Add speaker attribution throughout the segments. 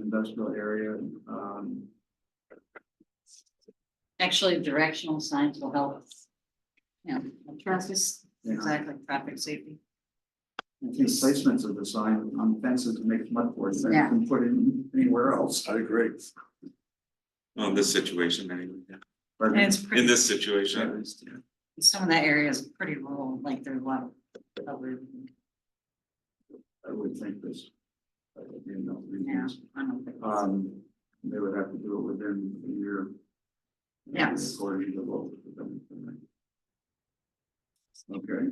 Speaker 1: industrial area, um.
Speaker 2: Actually, directional signs will help us. Yeah, traffic,
Speaker 1: Yeah.
Speaker 2: exactly, traffic safety.
Speaker 1: I think placements of the sign on fences to make mud boards, that you
Speaker 2: Yeah.
Speaker 1: can put in anywhere else.
Speaker 3: I agree. On this situation anyway, yeah.
Speaker 1: But
Speaker 2: And it's
Speaker 3: in
Speaker 2: pretty,
Speaker 3: this situation,
Speaker 2: some of that area is pretty rural, like there's a lot of. covered,
Speaker 1: I would think this. uh, You know,
Speaker 2: Yeah,
Speaker 1: reasons,
Speaker 2: I don't think
Speaker 4: Uh,
Speaker 2: it's-
Speaker 1: um, they would have to do it within a year.
Speaker 2: Yes.
Speaker 1: According to the law. Okay,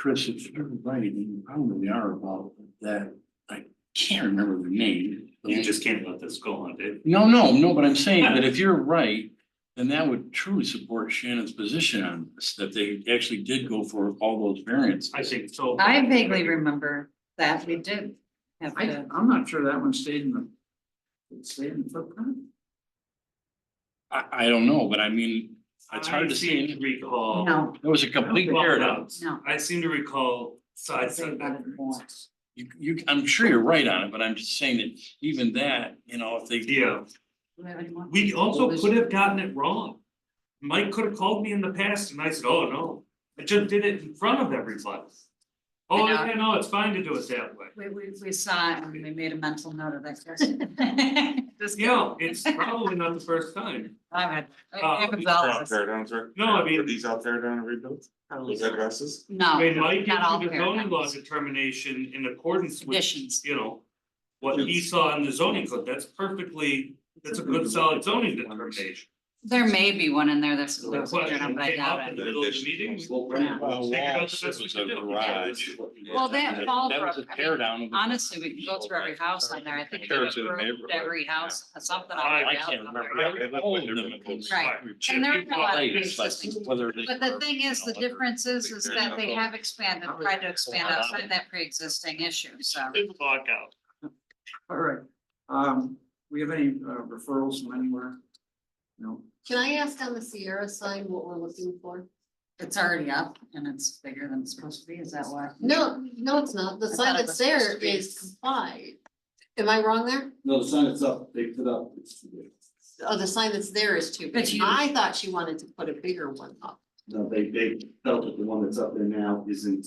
Speaker 5: Chris, if you're right, you probably are about that, I can't remember the name.
Speaker 4: You just can't let this go on, Dave.
Speaker 5: No, no, no, but I'm saying that if you're right, then that would truly support Shannon's position on this, that they actually did go for all those variants.
Speaker 4: I think so.
Speaker 2: I vaguely remember that we did have
Speaker 1: I,
Speaker 2: to,
Speaker 1: I'm not sure that one stayed in the. It stayed in the footprint?
Speaker 5: I, I don't know, but I mean, it's hard to
Speaker 4: I seem
Speaker 5: see.
Speaker 4: Recall.
Speaker 2: no,
Speaker 5: That was a complete
Speaker 4: Well,
Speaker 5: paradox.
Speaker 2: no.
Speaker 4: I seem to recall side
Speaker 2: Say
Speaker 4: setback.
Speaker 2: about it more.
Speaker 5: You, you, I'm sure you're right on it, but I'm just saying that even that, you know, if they.
Speaker 4: Yeah,
Speaker 2: Do we have any more?
Speaker 4: we also
Speaker 2: Well,
Speaker 4: could have gotten it wrong. Mike could have called me in the past and I said, oh, no, I just did it in front of everybody. Oh,
Speaker 2: I know.
Speaker 4: yeah, no, it's fine to do it that way.
Speaker 2: We, we, we saw it and we made a mental note of that. Chris. Just kidding.
Speaker 4: Yeah, it's probably not the first time.
Speaker 2: All right.
Speaker 4: Uh,
Speaker 2: Happens
Speaker 3: These
Speaker 2: all
Speaker 3: are
Speaker 2: of
Speaker 3: out
Speaker 2: us.
Speaker 3: there, don't they?
Speaker 4: No, I mean-
Speaker 3: Are these out there down rebuilt? Those addresses?
Speaker 2: No,
Speaker 4: When Mike
Speaker 2: not all
Speaker 4: issued the zoning law
Speaker 2: paradigms,
Speaker 4: determination in accordance with,
Speaker 2: conditions.
Speaker 4: you know, what he saw in the zoning code, that's perfectly, that's a good solid zoning determination.
Speaker 2: There may be one in there that's.
Speaker 4: So The question
Speaker 2: but I
Speaker 4: came up
Speaker 2: doubt
Speaker 4: in
Speaker 2: it.
Speaker 4: the middle of the meeting.
Speaker 2: Yeah.
Speaker 5: Well,
Speaker 4: Figure out
Speaker 5: Walsh,
Speaker 4: the best
Speaker 5: it was
Speaker 4: we
Speaker 5: a
Speaker 4: could do.
Speaker 5: garage.
Speaker 2: Well, that fall
Speaker 5: That was a
Speaker 2: broke, I mean,
Speaker 5: tear down. of the-
Speaker 2: Honestly, we can go through every house on there. I think they
Speaker 5: Compared to the
Speaker 2: approved
Speaker 5: neighborhood.
Speaker 2: every house, something. on
Speaker 4: I-
Speaker 2: every
Speaker 5: I
Speaker 2: house
Speaker 5: can't
Speaker 2: on
Speaker 5: remember.
Speaker 2: there.
Speaker 3: Yeah, they look like they're rebuilt.
Speaker 2: Right. And there are a lot of pre-existing.
Speaker 5: Whether they.
Speaker 2: But the thing is, the difference is, is that they have expanded, tried to expand outside that pre-existing issue, so.
Speaker 4: Big walkout.
Speaker 1: All right, um, we have any uh, referrals from anywhere? No,
Speaker 6: Can I ask on the Sierra sign what we're looking for?
Speaker 2: Mm-hmm. It's already up and it's bigger than it's supposed to be, is that why?
Speaker 6: No, no, it's not. The
Speaker 2: I
Speaker 6: sign
Speaker 2: thought it
Speaker 6: that's
Speaker 2: was
Speaker 6: there
Speaker 2: supposed to be-
Speaker 6: is complied. Am I wrong there?
Speaker 7: No, the sign is up, they put up.
Speaker 6: Oh, the sign that's there is too
Speaker 2: But
Speaker 6: big.
Speaker 2: you-
Speaker 6: I thought she wanted to put a bigger one up.
Speaker 7: No, they, they felt that the one that's up there now isn't.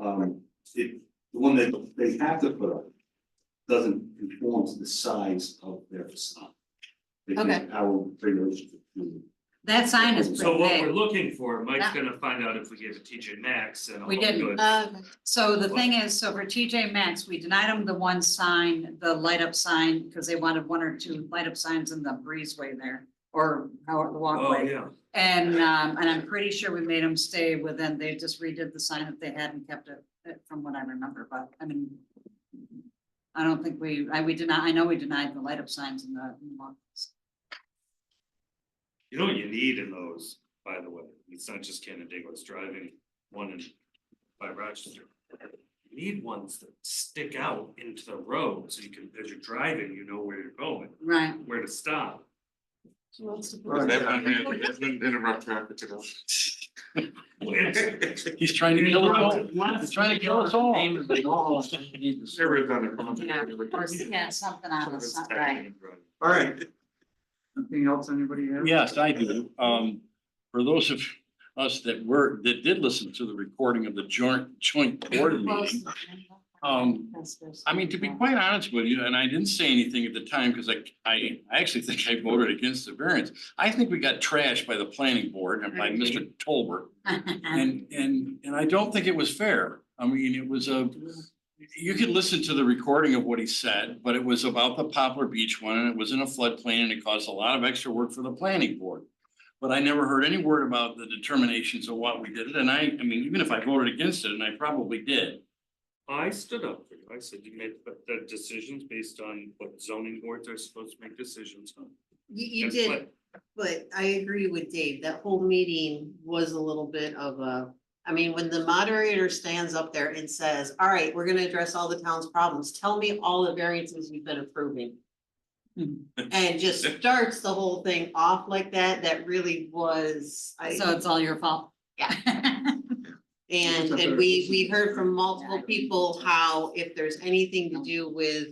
Speaker 7: Um, it, the one that they have to put up doesn't conform to the size of their facade. Because
Speaker 6: Okay.
Speaker 7: Our regulations. do.
Speaker 2: That sign is
Speaker 4: So
Speaker 2: pretty
Speaker 4: what we're
Speaker 2: big.
Speaker 4: looking for, Mike's
Speaker 2: Yeah.
Speaker 4: gonna find out if we gave it TJ Maxx and. all
Speaker 2: We didn't.
Speaker 4: good.
Speaker 6: Uh,
Speaker 2: So the thing is, so for TJ Maxx, we denied them the one sign, the light up sign, because they wanted one or two light up signs in the breezeway there. Or out the
Speaker 4: Oh,
Speaker 2: walkway.
Speaker 4: yeah,
Speaker 2: And, um, and I'm pretty sure we made them stay within, they just redid the sign if they hadn't kept it, uh, from what I remember, but I mean. I don't think we, I, we deny, I know we denied the light up signs in the. in the walkways.
Speaker 4: you know what you need in those, by the way, it's not just Canadigo's driving one in by Rochester. You Need ones that stick out into the road, so you can, as you're driving, you know where you're going,
Speaker 2: Right,
Speaker 4: where to stop.
Speaker 6: she wants to put
Speaker 1: Right.
Speaker 6: a-
Speaker 3: That one, yeah, that one interrupt traffic to those.
Speaker 4: It's-
Speaker 5: He's trying to kill us all. He's trying to kill us all.
Speaker 3: Never done it.
Speaker 2: Yeah, or, yeah, something on the side, right.
Speaker 1: all right. Anything else anybody has?
Speaker 5: Yes, I do. Um, for those of us that were, that did listen to the recording of the joint, joint board meeting. Um, I mean, to be quite honest with you, and I didn't say anything at the time because I, I, I actually think I voted against the variance. I think we got trashed by the planning board and by Mr. Tolbert. And, and, and I don't think it was fair. I mean, it was a, you could listen to the recording of what he said, but it was about the Poplar Beach one and it was in a floodplain and it caused a lot of extra work for the planning board. But I never heard any word about the determinations of what we did it. And I, I mean, even if I voted against it, and I probably did,
Speaker 4: I stood up for you. I said you made the- the decisions based on what zoning boards are supposed to make decisions on.
Speaker 6: You, you
Speaker 4: And
Speaker 6: did,
Speaker 4: what-
Speaker 6: but I agree with Dave. That whole meeting was a little bit of a, I mean, when the moderator stands up there and says, all right, we're gonna address all the town's problems. Tell me all the variances you've been approving.
Speaker 2: Hmm.
Speaker 6: And just starts the whole thing off like that. That really was, I.
Speaker 2: So it's all your fault. Yeah.
Speaker 6: And,
Speaker 1: It's a
Speaker 6: and
Speaker 1: better
Speaker 6: we,
Speaker 1: system.
Speaker 6: we heard from
Speaker 2: Yeah, I
Speaker 6: multiple
Speaker 2: agree.
Speaker 6: people how if there's anything to do with